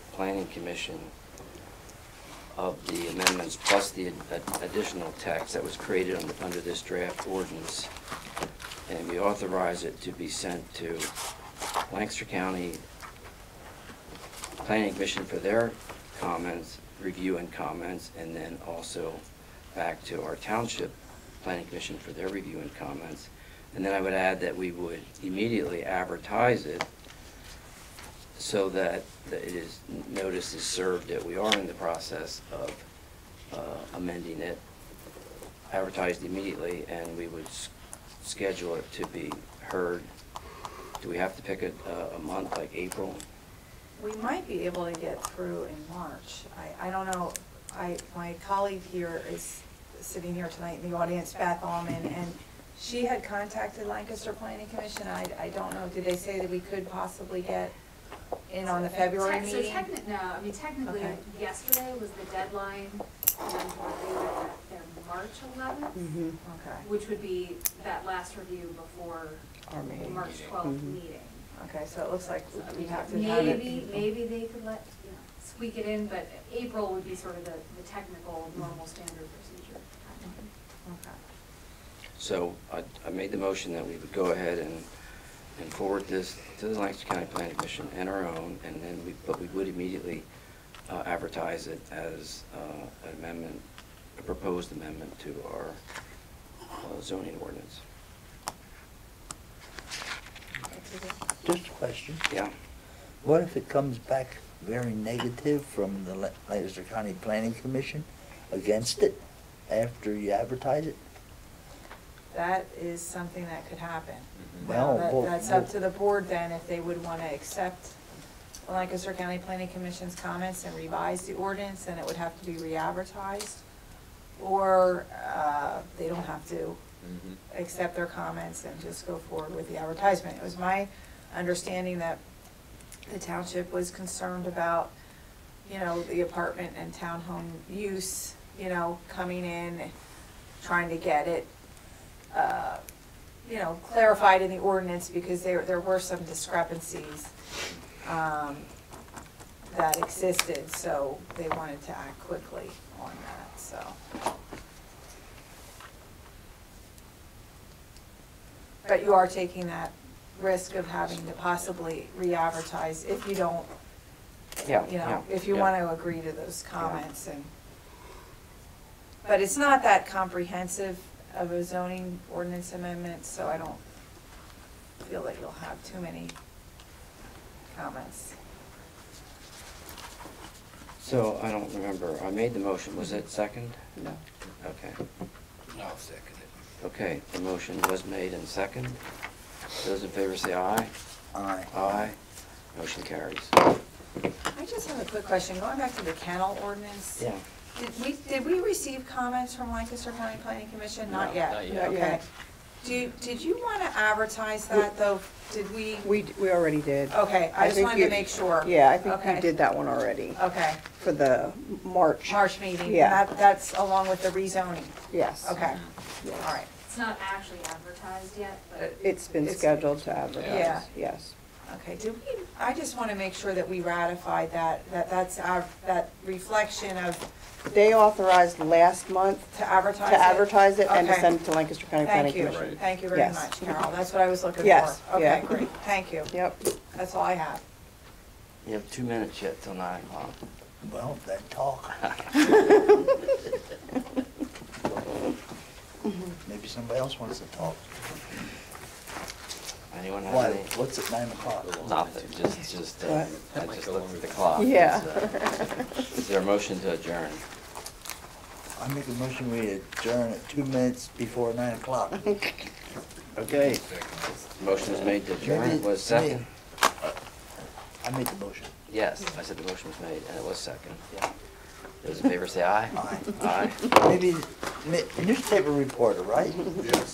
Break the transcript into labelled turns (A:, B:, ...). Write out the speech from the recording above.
A: planning commission of the amendments plus the ad- additional text that was created on- under this draft ordinance. And we authorize it to be sent to Lancaster County Planning Commission for their comments, review and comments, and then also back to our township planning commission for their review and comments. And then I would add that we would immediately advertise it so that that it is, notice is served that we are in the process of uh, amending it, advertised immediately, and we would s- schedule it to be heard. Do we have to pick a, a- a month, like April?
B: We might be able to get through in March. I, I don't know, I, my colleague here is sitting here tonight in the audience, Beth Alman, and she had contacted Lancaster Planning Commission. I, I don't know, did they say that we could possibly get in on the February
C: Tec- So
B: meeting?
C: techni- no, I mean technically,
B: Okay.
C: yesterday was the deadline, and then they were at their March eleventh,
B: Mm-hmm.
D: Mhm.
B: Okay,
C: which would be that last review before
B: our
C: the
B: meeting.
C: March twelfth
D: Mhm.
C: meeting.
B: Okay, so it looks like
C: So, I
B: we
C: mean,
B: have to have it.
C: maybe, maybe they could let, you know, squeak it in, but April would be sort of the, the technical, normal standard procedure.
B: Mm-hmm. Okay.
A: So I, I made the motion that we would go ahead and, and forward this to the Lancaster County Planning Commission and our own, and then we, but we would immediately uh, advertise it as uh, an amendment, a proposed amendment to our uh, zoning ordinance.
E: Just a question.
A: Yeah?
E: What if it comes back very negative from the La- Lancaster County Planning Commission against it after you advertise it?
B: That is something that could happen.
E: Mhm.
B: Now,
E: Well,
B: that-
E: well,
B: That's up
E: well-
B: to the board then, if they would want to accept Lancaster County Planning Commission's comments and revise the ordinance, then it would have to be re-advertised. Or uh, they don't have to accept their comments and just go forward with the advertisement. It was my understanding that the township was concerned about, you know, the apartment and townhome use, you know, coming in, trying to get it, uh, you know, clarified in the ordinance because there, there were some discrepancies um, that existed, so they wanted to act quickly on that, so. But you are taking that risk of having to possibly re-advertise if you don't,
A: Yeah,
B: you know,
A: yeah,
B: if you
A: yeah.
B: want to agree to those comments and. But it's not that comprehensive of a zoning ordinance amendment, so I don't feel that you'll have too many comments.
A: So I don't remember, I made the motion, was it second?
B: No.
A: Okay.
F: I'll second it.
A: Okay, the motion was made and second. Those in favor say aye.
E: Aye.
A: Aye. Motion carries.
B: I just have a quick question, going back to the kennel ordinance.
A: Yeah.
B: Did we, did we receive comments from Lancaster County Planning Commission? Not
A: No,
B: yet?
A: not yet.
D: Not
B: Okay.
D: yet.
B: Do, you- did you want to advertise that, though? Did we?
D: We, d- we already did.
B: Okay, I just
D: think
B: wanted to
D: you-
B: make sure.
D: Yeah, I think
B: Okay.
D: you did that one already
B: Okay,
D: for the March.
B: March meeting.
D: Yeah.
B: That- That's along with the rezoning.
D: Yes.
B: Okay, all
D: yes.
B: right,
C: It's not actually advertised yet, but.
D: It's been
B: It's-
D: scheduled to advertise,
B: Yeah.
D: yes.
B: okay. Did we, I just want to make sure that we ratified that, that that's our, that reflection of,
D: They authorized last month
B: to advertise it?
D: to advertise it and to
B: Okay.
D: send it to Lancaster County Planning
B: Thank you,
D: Commission.
B: thank you very
D: Yes.
B: much, Carol, that's what I was looking for.
D: Yes, yeah.
B: Okay, great, thank you,
D: Yep,
B: that's all I have.
A: You have two minutes yet till nine o'clock.
E: Well, that talk. Maybe somebody else wants to talk.
A: Anyone
E: Why,
A: have any?
E: what's at nine o'clock?
A: Nothing, just, just, uh, I just looked at the clock. uh,
D: yeah.
A: Is there a motion to adjourn?
E: I make a motion we adjourn at two minutes before nine o'clock. Okay.
A: Motion is made to adjourn,
E: Maybe-
A: was second?
E: maybe- I made the motion.
A: Yes, I said the motion was made, and it was second. Those in favor say aye.
E: Aye.
A: Aye.
E: Maybe, ma- newspaper reporter, right?
F: Yes.